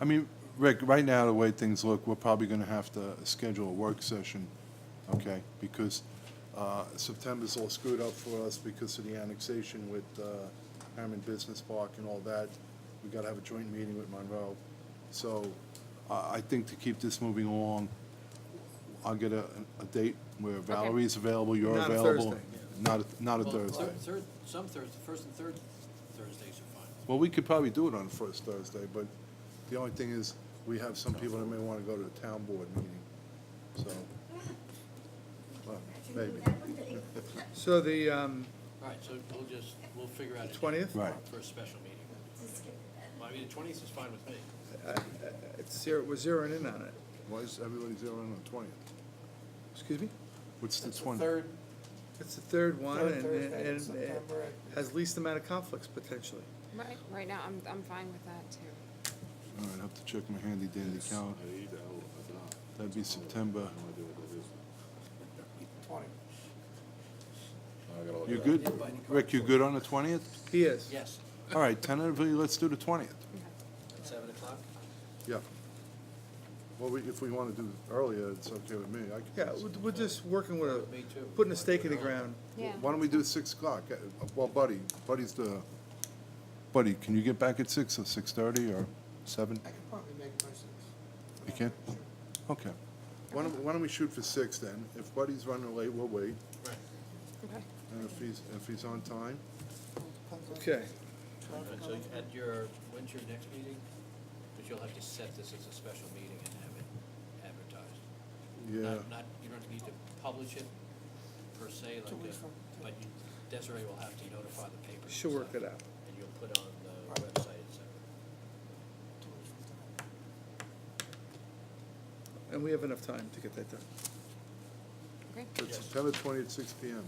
I mean, Rick, right now, the way things look, we're probably going to have to schedule a work session, okay? Because uh, September's all screwed up for us because of the annexation with uh, Hammond Business Park and all that. We got to have a joint meeting with Monroe. So I I think to keep this moving along, I'll get a, a date where Valerie's available, you're Not a available. Thursday, yeah. Not a Not a Well, thir- Thursday. third- Some Thursday, first and third Thursdays are fine. Well, we could probably do it on the first Thursday, but the only thing is, we have some people that may want to go to the town board meeting, so. well, Maybe. So the, um, All right, so we'll just, we'll figure out. a date 20th? Right. For a special meeting. Well, I mean, the twentieth is fine with me. it's zero, we're zeroing in on it. Why is everybody zeroing on the twentieth? Excuse me? What's the It's twentieth? Third, It's the third one Third and, Thursday in and it September. has least amount of conflicts potentially. Right, right now, I'm, I'm fine with that too. All right, I have to check my handy dandy calendar. That'd be September. twenty. You good? Rick, you good on the twentieth? He is. Yes, All right, tentatively, let's do the twentieth. at seven o'clock. Yeah. Well, we- if we want to do it earlier, it's okay with me. I could- Yeah, we're, we're just working with a, Me too. putting a stake in the ground. Yeah. Why don't we do six o'clock? Uh, Well, Buddy, Buddy's the, Buddy, can you get back at six or six-thirty or seven? I could probably make my six. You can? Okay. Why don't, why don't we shoot for six then? If Buddy's running late, we'll wait. Right. Okay. And if he's, if he's on time, Okay. All right, So at your, when's your next meeting? Because you'll have to set this as a special meeting and have it advertised. yeah, Not, not, you don't need to publish it per se, like, Two weeks a- from- but you- Desiree will have to notify the paper. and She'll work stuff, it out. And you'll put on the website, et cetera. And we have enough time to get that done. Okay. it's September twentieth, six P M.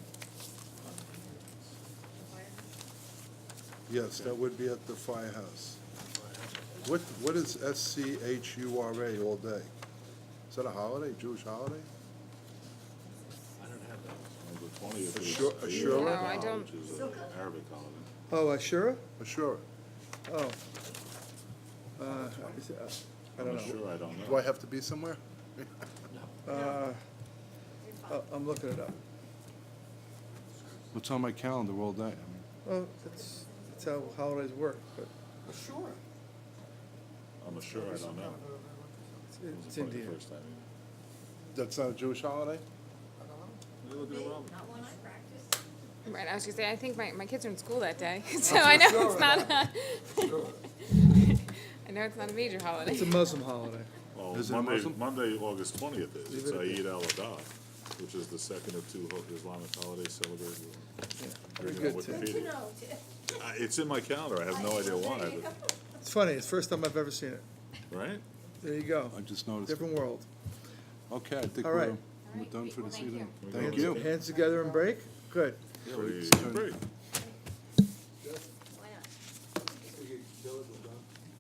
Yes, that would be at the firehouse. What, what is S C H U R A all day? Is that a holiday, Jewish holiday? I don't have that. Assure, No, assure, I don't, Oh, Ashura? assure. Oh. Uh, is it, uh, I don't know. Do I have to be somewhere? Uh, oh, I'm looking it up. What's on my calendar all day? I mean, Well, that's, that's how holidays work, but Well, Sure. I'm sure I don't know. it's- It was it's probably the Indian. first time. That's not a Jewish holiday? Not one I practice. right, I was gonna say, I think my, my kids are in school that day, so I know it's not a, I know it's not a major It's a holiday. Muslim holiday. Well, Is it a Monday, Muslim? Monday, August twentieth Leave is, it it's at Eid al-Adha, which is the second of two ho- Islamic holidays celebrated. Very Reading on good, too. Wikipedia. Good to know. I- It's in my calendar, I have no idea why, but, It's funny, it's the first time I've ever seen it. right? There you go. I just noticed. Different world. Okay, I think All we're, right. we're done for Well, this thank evening. you. Thank Hands- you. Hands together and break? Good. Yeah, we Pretty just turned- great.